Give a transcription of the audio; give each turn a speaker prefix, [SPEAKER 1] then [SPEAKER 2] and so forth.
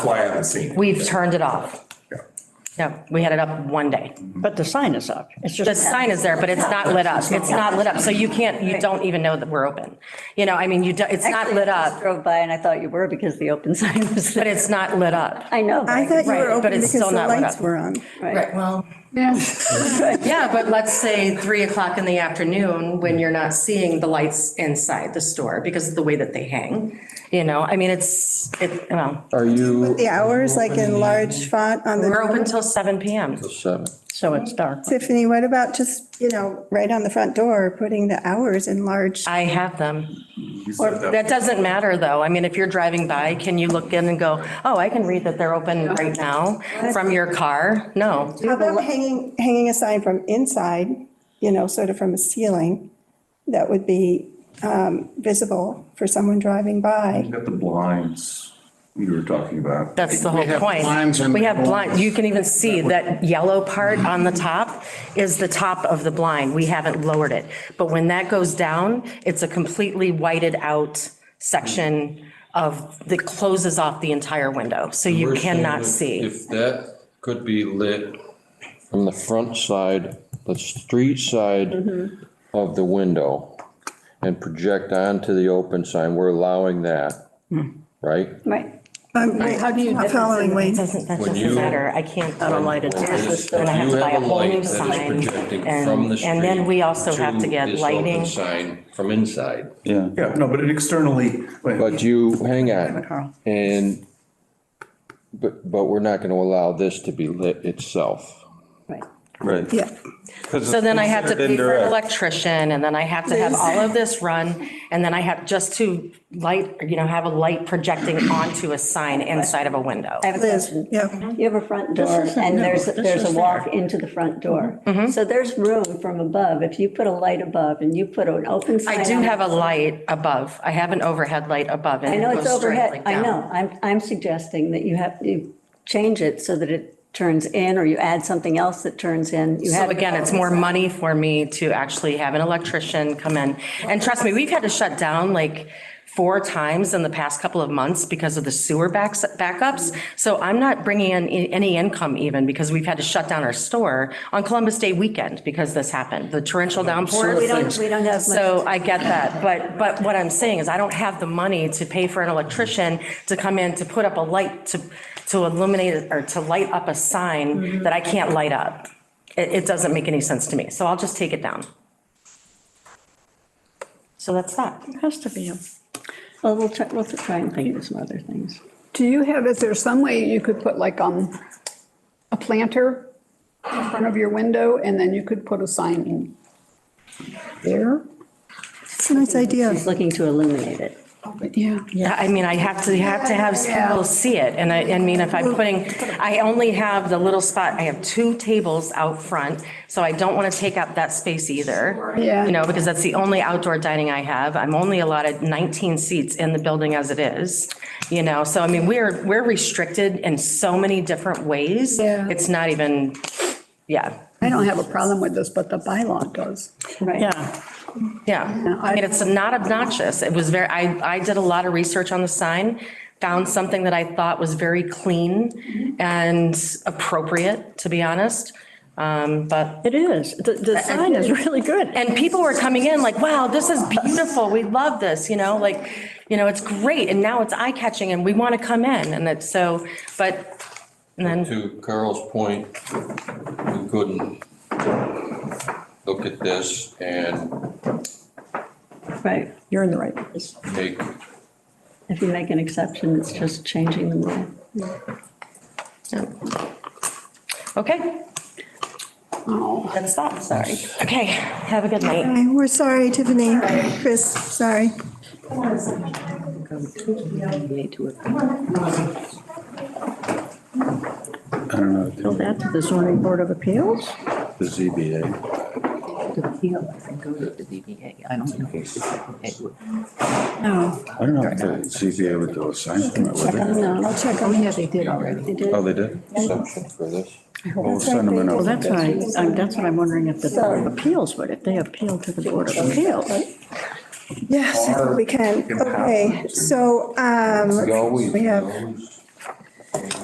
[SPEAKER 1] why I haven't seen it.
[SPEAKER 2] We've turned it off. No, we had it up one day.
[SPEAKER 3] But the sign is up. It's
[SPEAKER 2] The
[SPEAKER 3] just,
[SPEAKER 2] sign is there, but it's not lit up. It's not lit up. So you can't, you don't even know that we're open. You know, I mean, you, do- it's not
[SPEAKER 3] Actually,
[SPEAKER 2] lit
[SPEAKER 3] I
[SPEAKER 2] up,
[SPEAKER 3] drove by and I thought you were because the open sign was
[SPEAKER 2] but
[SPEAKER 3] there.
[SPEAKER 2] it's not lit up.
[SPEAKER 3] I know.
[SPEAKER 4] I thought you
[SPEAKER 2] Right,
[SPEAKER 4] were
[SPEAKER 2] but
[SPEAKER 4] open
[SPEAKER 2] it's
[SPEAKER 4] because
[SPEAKER 2] still
[SPEAKER 4] the
[SPEAKER 2] not lit
[SPEAKER 4] lights
[SPEAKER 2] up.
[SPEAKER 4] were on.
[SPEAKER 2] Right, well. Yeah, but let's say three o'clock in the afternoon when you're not seeing the lights inside the store because of the way that they hang. You know, I mean, it's, it, well,
[SPEAKER 5] Are you?
[SPEAKER 4] The hours, like in large font on
[SPEAKER 2] we're
[SPEAKER 4] the,
[SPEAKER 2] open till seven PM.
[SPEAKER 5] Seven.
[SPEAKER 3] So it's dark.
[SPEAKER 4] Tiffany, what about just, you know, right on the front door, putting the hours in large?
[SPEAKER 2] I have them.
[SPEAKER 1] You
[SPEAKER 2] Or
[SPEAKER 1] said
[SPEAKER 2] that doesn't matter though. I mean, if you're driving by, can you look in and go, oh, I can read that they're open right now from your car? No.
[SPEAKER 4] How about hanging, hanging a sign from inside, you know, sort of from a ceiling that would be um, visible for someone driving by?
[SPEAKER 1] You got the blinds you were talking about.
[SPEAKER 2] That's the whole
[SPEAKER 6] have
[SPEAKER 2] point.
[SPEAKER 6] blinds and-
[SPEAKER 2] We have blind, you can even see that yellow part on the top is the top of the blind. We haven't lowered it. But when that goes down, it's a completely whited out section of, that closes off the entire window. So you
[SPEAKER 5] We're saying
[SPEAKER 2] cannot
[SPEAKER 5] if-
[SPEAKER 2] see.
[SPEAKER 7] If that could be lit,
[SPEAKER 5] From the front side, the street side
[SPEAKER 2] Mm-hmm.
[SPEAKER 5] of the window and project onto the open sign, we're allowing that,
[SPEAKER 2] Hmm.
[SPEAKER 5] right?
[SPEAKER 3] Right.
[SPEAKER 4] I'm not following
[SPEAKER 2] It
[SPEAKER 4] Wayne.
[SPEAKER 2] doesn't, that
[SPEAKER 7] When
[SPEAKER 2] doesn't
[SPEAKER 7] you-
[SPEAKER 2] matter. I can't. I don't
[SPEAKER 3] light it.
[SPEAKER 2] And I have
[SPEAKER 5] You
[SPEAKER 2] to buy a
[SPEAKER 5] have a
[SPEAKER 2] whole new
[SPEAKER 5] light that is
[SPEAKER 2] sign.
[SPEAKER 5] projecting from
[SPEAKER 2] And,
[SPEAKER 5] the street.
[SPEAKER 2] and then we also have to
[SPEAKER 5] to
[SPEAKER 2] get
[SPEAKER 5] this open
[SPEAKER 2] lighting.
[SPEAKER 5] Sign from inside.
[SPEAKER 6] Yeah.
[SPEAKER 1] Yeah, no, but it externally, but
[SPEAKER 5] But you, hang on, and, but, but we're not gonna allow this to be lit itself.
[SPEAKER 3] Right.
[SPEAKER 6] Right.
[SPEAKER 4] Yeah.
[SPEAKER 2] So then I have to pay for an electrician and then I have to have all of this run. And then I have just to light, you know, have a light projecting onto a sign inside of a window.
[SPEAKER 3] I have a
[SPEAKER 4] Liz,
[SPEAKER 3] question.
[SPEAKER 4] yeah.
[SPEAKER 3] You have a front door and there's, there's a walk into the front door. So there's room from above. If you put a light above and you put an open sign.
[SPEAKER 2] I do
[SPEAKER 3] on it-
[SPEAKER 2] have a light above. I have an overhead light above. and
[SPEAKER 3] I
[SPEAKER 2] it
[SPEAKER 3] know it's
[SPEAKER 2] goes straight
[SPEAKER 3] overhead,
[SPEAKER 2] like
[SPEAKER 3] I
[SPEAKER 2] down.
[SPEAKER 3] know, I'm, I'm suggesting that you have, you change it so that it turns in, or you add something else that turns in. You
[SPEAKER 2] So
[SPEAKER 3] have-
[SPEAKER 2] again, it's more money for me to actually have an electrician come in. And trust me, we've had to shut down like four times in the past couple of months because of the sewer backs, backups. So I'm not bringing in i- any income even because we've had to shut down our store on Columbus Day weekend because this happened, the torrential downpours.
[SPEAKER 3] We don't, we don't have much,
[SPEAKER 2] So I get that, but, but what I'm saying is I don't have the money to pay for an electrician to come in to put up a light, to, to illuminate or to light up a
[SPEAKER 3] Mm-hmm.
[SPEAKER 2] sign that I can't light up. It, it doesn't make any sense to me, so I'll just take it down. So that's that.
[SPEAKER 3] has to be. Well, we'll try, we'll try and think of some other things.
[SPEAKER 8] Do you have, is there some way you could put like, um, a planter in front of your window and then you could put a sign in there?
[SPEAKER 4] It's a nice idea.
[SPEAKER 3] He's looking to illuminate it.
[SPEAKER 8] Yeah.
[SPEAKER 2] I mean, I have to, you have to have people see it, and I, I mean, if I'm putting, I only have the little spot, I have two tables out front, so I don't want to take up that space either.
[SPEAKER 8] Yeah.
[SPEAKER 2] You know, because that's the only outdoor dining I have, I'm only allotted 19 seats in the building as it is, you know, so I mean, we're, we're restricted in so many different ways.
[SPEAKER 8] Yeah.
[SPEAKER 2] It's not even, yeah,
[SPEAKER 8] I don't have a problem with this, but the bylaw does.
[SPEAKER 3] Right.
[SPEAKER 4] Yeah.
[SPEAKER 2] Yeah, I mean, it's not obnoxious. It was very, I, I did a lot of research on the sign, found something that I thought was very clean and appropriate, to be honest. Um, But,
[SPEAKER 3] It is. The, the sign is really good.
[SPEAKER 2] and people were coming in like, wow, this is beautiful. We love this, you know, like, you know, it's great. And now it's eye catching and we want to come in. And it's so, but, and then,
[SPEAKER 5] To Carl's point, we couldn't look at this and
[SPEAKER 3] Right.
[SPEAKER 8] You're in the right place.
[SPEAKER 5] make,
[SPEAKER 3] If you make an exception, it's just changing the rule.
[SPEAKER 2] okay,
[SPEAKER 8] Oh,
[SPEAKER 2] that's that, sorry. Okay, have a good night.
[SPEAKER 4] Hi, We're sorry, Tiffany, Chris, sorry.
[SPEAKER 6] I don't know.
[SPEAKER 3] Go back to the zoning board of appeals?
[SPEAKER 6] The ZBA.
[SPEAKER 9] to appeal and go to the ZBA. I don't know if the ZBA would.
[SPEAKER 3] No.
[SPEAKER 6] I don't know if the ZBA would do a sign permit, would they?
[SPEAKER 3] No.
[SPEAKER 9] Oh, yeah, they did already.
[SPEAKER 3] They did.
[SPEAKER 6] Oh, they did?
[SPEAKER 5] assumption for this.
[SPEAKER 6] Well, send them
[SPEAKER 3] Well,
[SPEAKER 6] in.
[SPEAKER 3] that's what I, I'm- that's what I'm wondering if the Board of Appeals would, if they appeal to the Board of Appeals.
[SPEAKER 4] Yes, we can. Okay, so, um,
[SPEAKER 5] We always,
[SPEAKER 4] we
[SPEAKER 5] we
[SPEAKER 4] have-
[SPEAKER 5] always